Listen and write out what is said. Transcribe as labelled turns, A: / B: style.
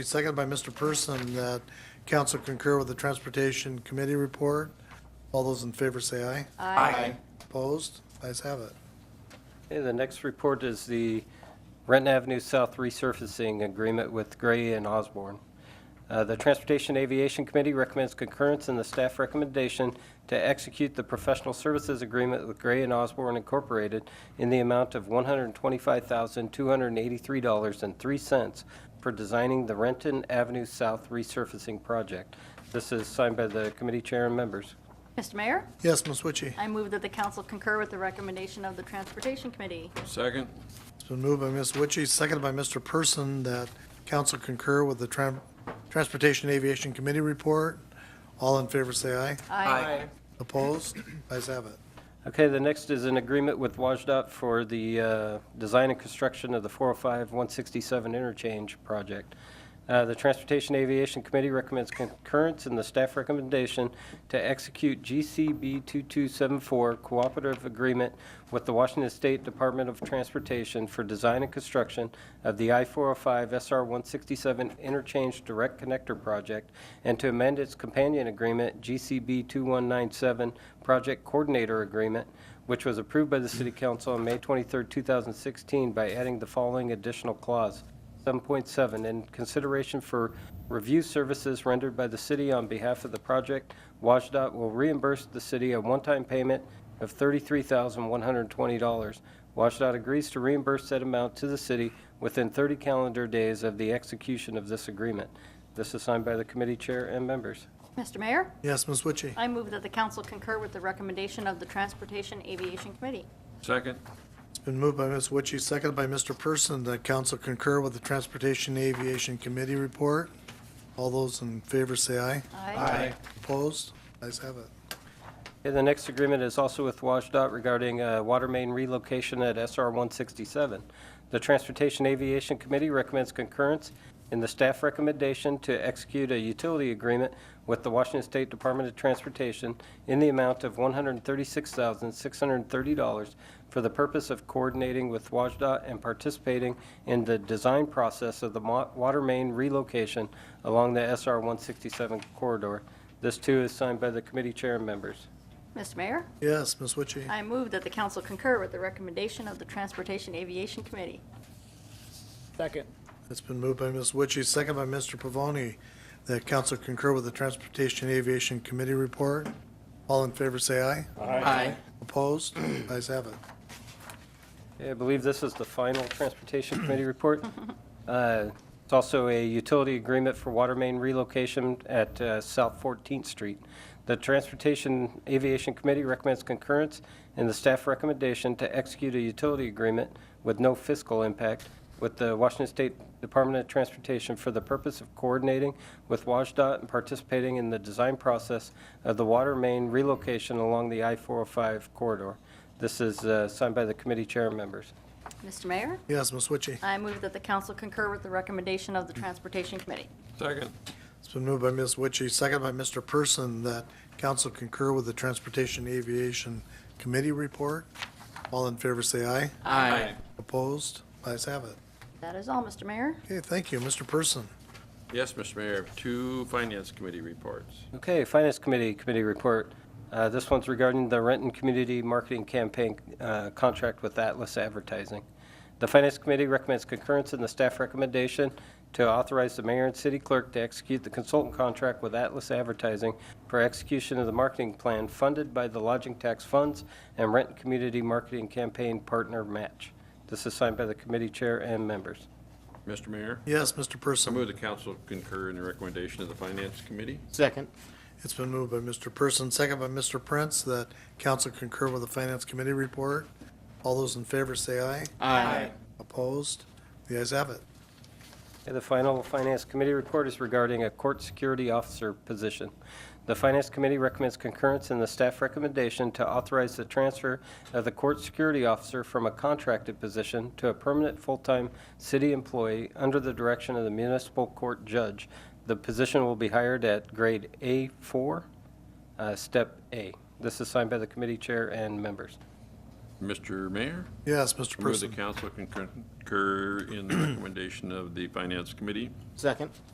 A: Seconded by Mr. Person that council concur with the Transportation Committee report. All those in favor say aye.
B: Aye.
A: Opposed? Ayes have it.
C: Okay, the next report is the Renton Avenue South resurfacing agreement with Gray and Osborne. Uh, The Transportation Aviation Committee recommends concurrence in the staff recommendation to execute the professional services agreement with Gray and Osborne Incorporated in the amount of $125,283.03 for designing the Renton Avenue South resurfacing project. This is signed by the committee chair and members.
D: Mr. Mayor,
A: Yes, Ms. Witchy.
D: I move that the council concur with the recommendation of the Transportation Committee.
B: Second.
A: It's been moved by Ms. Witchy, seconded by Mr. Person that council concur with the Tran- Transportation Aviation Committee report. All in favor say aye. Opposed? Ayes have it.
C: Okay, the next is an agreement with WashDOT for the uh, design and construction of the 405-167 interchange project. Uh, The Transportation Aviation Committee recommends concurrence in the staff recommendation to execute GCB 2274 cooperative agreement with the Washington State Department of Transportation for design and construction of the I-405 SR-167 interchange direct connector project and to amend its companion agreement, GCB 2197 Project Coordinator Agreement, which was approved by the City Council on May 23, 2016, by adding the following additional clause. 7.7, in consideration for review services rendered by the city on behalf of the project, WashDOT will reimburse the city a one-time payment of $33,120. WashDOT agrees to reimburse that amount to the city within 30 calendar days of the execution of this agreement. This is signed by the committee chair and members.
D: Mr. Mayor,
A: Yes, Ms. Witchy.
D: I move that the council concur with the recommendation of the Transportation Aviation Committee.
B: Second.
A: It's been moved by Ms. Witchy, seconded by Mr. Person that council concur with the Transportation Aviation Committee report. All those in favor say aye.
D: Aye.
A: Opposed? Ayes have it.
C: Okay, the next agreement is also with WashDOT regarding uh, water main relocation at SR 167. The Transportation Aviation Committee recommends concurrence in the staff recommendation to execute a utility agreement with the Washington State Department of Transportation in the amount of $136,630 for the purpose of coordinating with WashDOT and participating in the design process of the mo- water main relocation along the SR 167 corridor. This too is signed by the committee chair and members.
D: Mr. Mayor,
A: Yes, Ms. Witchy.
D: I move that the council concur with the recommendation of the Transportation Aviation Committee.
E: Second.
A: It's been moved by Ms. Witchy, second by Mr. Pavoni, that council concur with the Transportation Aviation Committee report. All in favor, say aye.
B: Aye.
A: Opposed? Ayes have it.
C: I believe this is the final Transportation Committee report. Uh, It's also a utility agreement for water main relocation at uh, South 14th Street. The Transportation Aviation Committee recommends concurrence in the staff recommendation to execute a utility agreement with no fiscal impact with the Washington State Department of Transportation for the purpose of coordinating with WashDOT and participating in the design process of the water main relocation along the I-405 corridor. This is uh, signed by the committee chair and members.
D: Mr. Mayor,
A: Yes, Ms. Witchy.
D: I move that the council concur with the recommendation of the Transportation Committee.
B: Second.
A: It's been moved by Ms. Witchy, second by Mr. Person, that council concur with the Transportation Aviation Committee report. All in favor, say aye.
B: Aye.
A: Opposed? Ayes have it.
D: That is all, Mr. Mayor.
A: Okay, thank you, Mr. Person.
B: Yes, Mr. Mayor, two Finance Committee reports.
C: Okay, Finance Committee, committee report. Uh, This one's regarding the Renton Community Marketing Campaign uh, contract with Atlas Advertising. The Finance Committee recommends concurrence in the staff recommendation to authorize the mayor and city clerk to execute the consultant contract with Atlas Advertising for execution of the marketing plan funded by the lodging tax funds and Renton Community Marketing Campaign Partner Match. This is signed by the committee chair and members.
B: Mr. Mayor,
A: Yes, Mr.
B: I
A: Person.
B: move the council concur in the recommendation of the Finance Committee.
E: Second.
A: It's been moved by Mr. Person, second by Mr. Prince, that council concur with the Finance Committee report. All those in favor, say aye.
E: Aye.
A: Opposed? The ayes have it.
C: And the final Finance Committee report is regarding a court security officer position. The Finance Committee recommends concurrence in the staff recommendation to authorize the transfer of the court security officer from a contracted position to a permanent full-time city employee under the direction of the municipal court judge. The position will be hired at grade A4, uh, step A. This is signed by the committee chair and members.
B: Mr. Mayor,
A: Yes, Mr.
B: I move the
A: Person.
B: council concur in the recommendation of the Finance Committee.
E: Second.